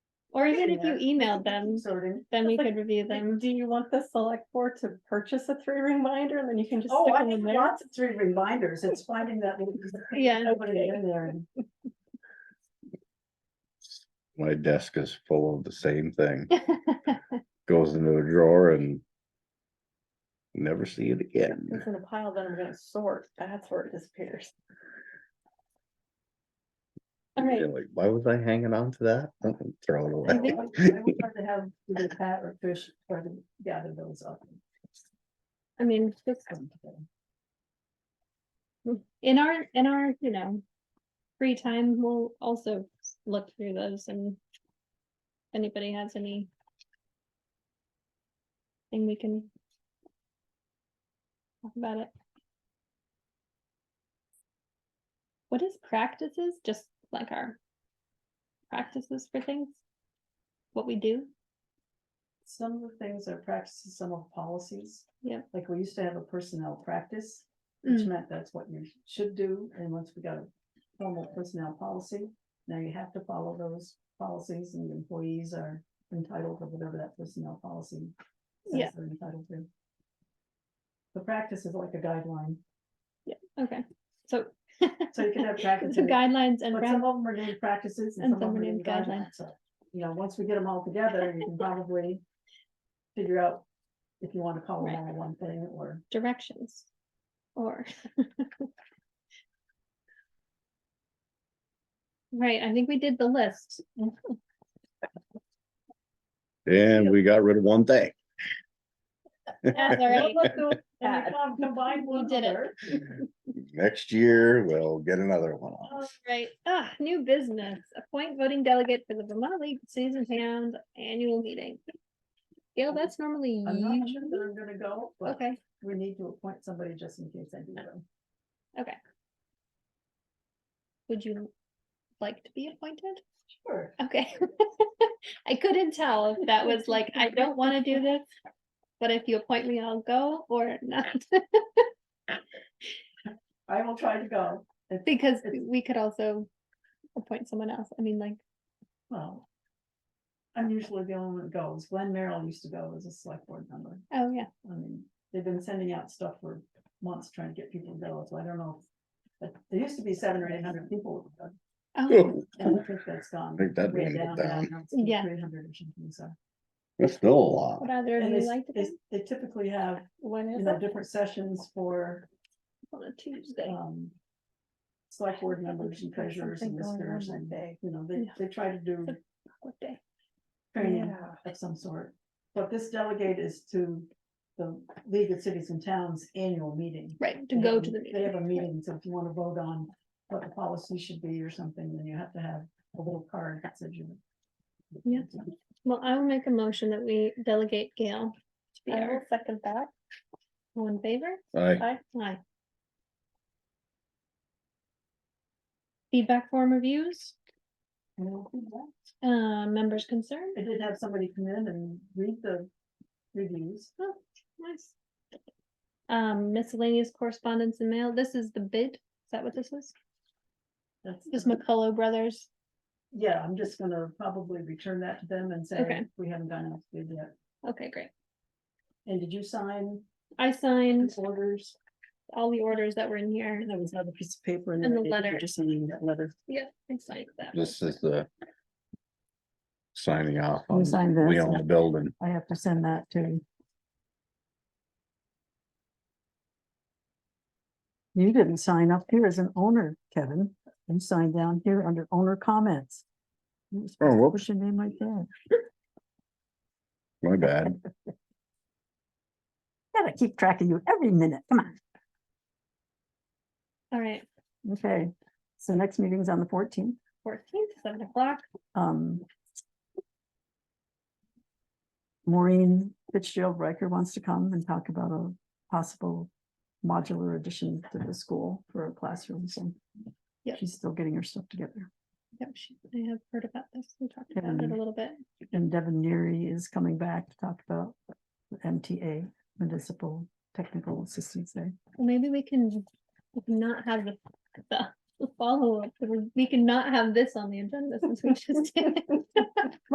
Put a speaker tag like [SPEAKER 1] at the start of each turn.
[SPEAKER 1] Or even if you emailed them,
[SPEAKER 2] Sorting.
[SPEAKER 1] then we
[SPEAKER 3] It's like-
[SPEAKER 1] could review them.
[SPEAKER 3] Do you want the select board to purchase a three ring binder and then you can just
[SPEAKER 2] Oh,
[SPEAKER 3] stick
[SPEAKER 2] I
[SPEAKER 3] them in
[SPEAKER 2] have
[SPEAKER 3] there?
[SPEAKER 2] lots of three reminders. It's finding that. little piece of paper,
[SPEAKER 1] Yeah.
[SPEAKER 2] Opening it in there and
[SPEAKER 4] My desk is full of the same thing. Goes into a drawer and. Never see it again.
[SPEAKER 3] It's in a pile that I'm gonna sort. That's where it disappears. All right,
[SPEAKER 4] You're Like, why was I hanging on to that? Oh, Throw it
[SPEAKER 2] I
[SPEAKER 4] away.
[SPEAKER 2] would I would love to have either Pat or Trish try to gather those up.
[SPEAKER 1] I mean, just in our, in our, you know, free time, we'll also look through those and if anybody has any thing we can talk about it. What is practices? Just like our practices for things? What we do?
[SPEAKER 2] Some of the things are practices, some of policies.
[SPEAKER 1] Yeah.
[SPEAKER 2] Like we used to have a personnel practice, which
[SPEAKER 1] Mm,
[SPEAKER 2] meant that's what you should do. And once we got a formal personnel policy, now you have to follow those policies and the employees are entitled to whatever that personnel policy. says
[SPEAKER 1] Yeah.
[SPEAKER 2] They're entitled to. The practice is like a guideline,
[SPEAKER 1] Okay, so.
[SPEAKER 2] so you can have practices.
[SPEAKER 1] So guidelines and.
[SPEAKER 2] But
[SPEAKER 1] practices.
[SPEAKER 2] some of them are named practices and some of them are named guidelines. So, You know, once we get them all together, you can probably figure out if you want to call them
[SPEAKER 1] Right.
[SPEAKER 2] all one thing or.
[SPEAKER 1] directions or right i think we did the list
[SPEAKER 4] And we got rid of one thing.
[SPEAKER 1] That's all right.
[SPEAKER 2] And we com- Combine one
[SPEAKER 1] did it.
[SPEAKER 2] other.
[SPEAKER 4] Next year, we'll get another one
[SPEAKER 1] all
[SPEAKER 4] off.
[SPEAKER 1] right ah new business appoint voting delegate for the vermont league season town annual meeting gail that's normally
[SPEAKER 2] I'm not
[SPEAKER 1] you
[SPEAKER 2] sure that I'm gonna go, but
[SPEAKER 1] Mm-hmm. okay
[SPEAKER 2] we need to appoint somebody just in case I do them.
[SPEAKER 1] would you like to be appointed
[SPEAKER 2] Sure.
[SPEAKER 1] okay i couldn't tell if that was like i don't want to do this but if you appoint me i'll go or not
[SPEAKER 2] I will try to go. If-
[SPEAKER 1] Because
[SPEAKER 2] It's-
[SPEAKER 1] we could also appoint someone else. I mean, like,
[SPEAKER 2] Well. I'm usually the only one that goes. Glenn Merrill used to go as a select board member.
[SPEAKER 1] oh yeah,
[SPEAKER 2] I mean, they've been sending out stuff for months trying to get people to go, so I don't know. But there used to be seven or eight hundred people, uh,
[SPEAKER 1] oh,
[SPEAKER 4] Ooh,
[SPEAKER 2] and I think that's gone.
[SPEAKER 4] I think that
[SPEAKER 2] way
[SPEAKER 4] one
[SPEAKER 2] down,
[SPEAKER 4] went down.
[SPEAKER 2] now it's like
[SPEAKER 1] Yeah.
[SPEAKER 2] 300 or something, so.
[SPEAKER 4] That's still a lot.
[SPEAKER 1] would either of
[SPEAKER 2] And
[SPEAKER 1] you
[SPEAKER 2] they,
[SPEAKER 1] like to
[SPEAKER 2] they,
[SPEAKER 1] be
[SPEAKER 2] they typically have,
[SPEAKER 3] when
[SPEAKER 2] you
[SPEAKER 3] is
[SPEAKER 2] know,
[SPEAKER 3] it?
[SPEAKER 2] different sessions for,
[SPEAKER 1] on a Tuesday?
[SPEAKER 2] um. Select board members and treasurers and
[SPEAKER 3] Something going
[SPEAKER 2] listeners
[SPEAKER 3] on
[SPEAKER 2] and
[SPEAKER 3] that
[SPEAKER 2] they, you know, they,
[SPEAKER 1] Yeah.
[SPEAKER 2] they try to do
[SPEAKER 1] What day?
[SPEAKER 2] training of some sort. But this delegate is to the League of Cities and Towns annual meeting.
[SPEAKER 1] Right, to
[SPEAKER 2] They
[SPEAKER 1] go
[SPEAKER 2] have
[SPEAKER 1] to
[SPEAKER 2] a-
[SPEAKER 1] the
[SPEAKER 2] They have a
[SPEAKER 1] right.
[SPEAKER 2] meeting, so if you wanna vote on what the policy should be or something, then you have to have a little card that says you.
[SPEAKER 1] Yeah. Well, I will make a motion that we delegate Gail to be
[SPEAKER 3] I will
[SPEAKER 1] our
[SPEAKER 3] second that.
[SPEAKER 1] one favor.
[SPEAKER 4] I,
[SPEAKER 3] I,
[SPEAKER 1] Aye. Feedback form reviews,
[SPEAKER 2] And we'll do that.
[SPEAKER 1] uh, members concerned.
[SPEAKER 2] I did have somebody come in and read the reviews.
[SPEAKER 1] Nice. Um, miscellaneous correspondence and mail. This is the bid. Is that what this is?
[SPEAKER 2] That's,
[SPEAKER 1] This is McCullough Brothers.
[SPEAKER 2] yeah, I'm just gonna probably return that to them and say,
[SPEAKER 1] Okay.
[SPEAKER 2] we haven't done it good yet.
[SPEAKER 1] Okay, great.
[SPEAKER 2] And did you sign
[SPEAKER 1] I signed
[SPEAKER 2] these orders?
[SPEAKER 1] all the orders that were in here.
[SPEAKER 2] There was another piece of paper in
[SPEAKER 1] And the
[SPEAKER 2] Did you
[SPEAKER 1] letter.
[SPEAKER 2] Just signing that letter.
[SPEAKER 1] Yeah, I signed that.
[SPEAKER 4] this is the. Signing off
[SPEAKER 2] You
[SPEAKER 4] on,
[SPEAKER 2] signed
[SPEAKER 4] we
[SPEAKER 2] this,
[SPEAKER 4] own
[SPEAKER 2] yeah.
[SPEAKER 4] the building.
[SPEAKER 2] I have to send that to. You didn't sign up here as an owner, Kevin. You signed down here under owner comments. You were supposed to
[SPEAKER 4] whoops.
[SPEAKER 2] Push your name like that.
[SPEAKER 4] My bad.
[SPEAKER 2] Gotta keep track of you every minute. Come on.
[SPEAKER 1] All right,
[SPEAKER 2] Okay. So next meeting's on the fourteenth.
[SPEAKER 1] fourteenth, seven o'clock.
[SPEAKER 2] Um. Maureen Fitzgerald Riker wants to come and talk about a possible modular addition to the school for a classroom. So
[SPEAKER 1] Yep.
[SPEAKER 2] she's still getting her stuff together.
[SPEAKER 1] Yep, she- I have heard about this. We talked about it a
[SPEAKER 2] And-
[SPEAKER 1] little bit.
[SPEAKER 2] And Devin Neary is coming back to talk about the MTA, Municipal Technical Assistance Day.
[SPEAKER 1] Well, Maybe we can we can not have the, the follow up. We can not have this on the agenda since we just did. it.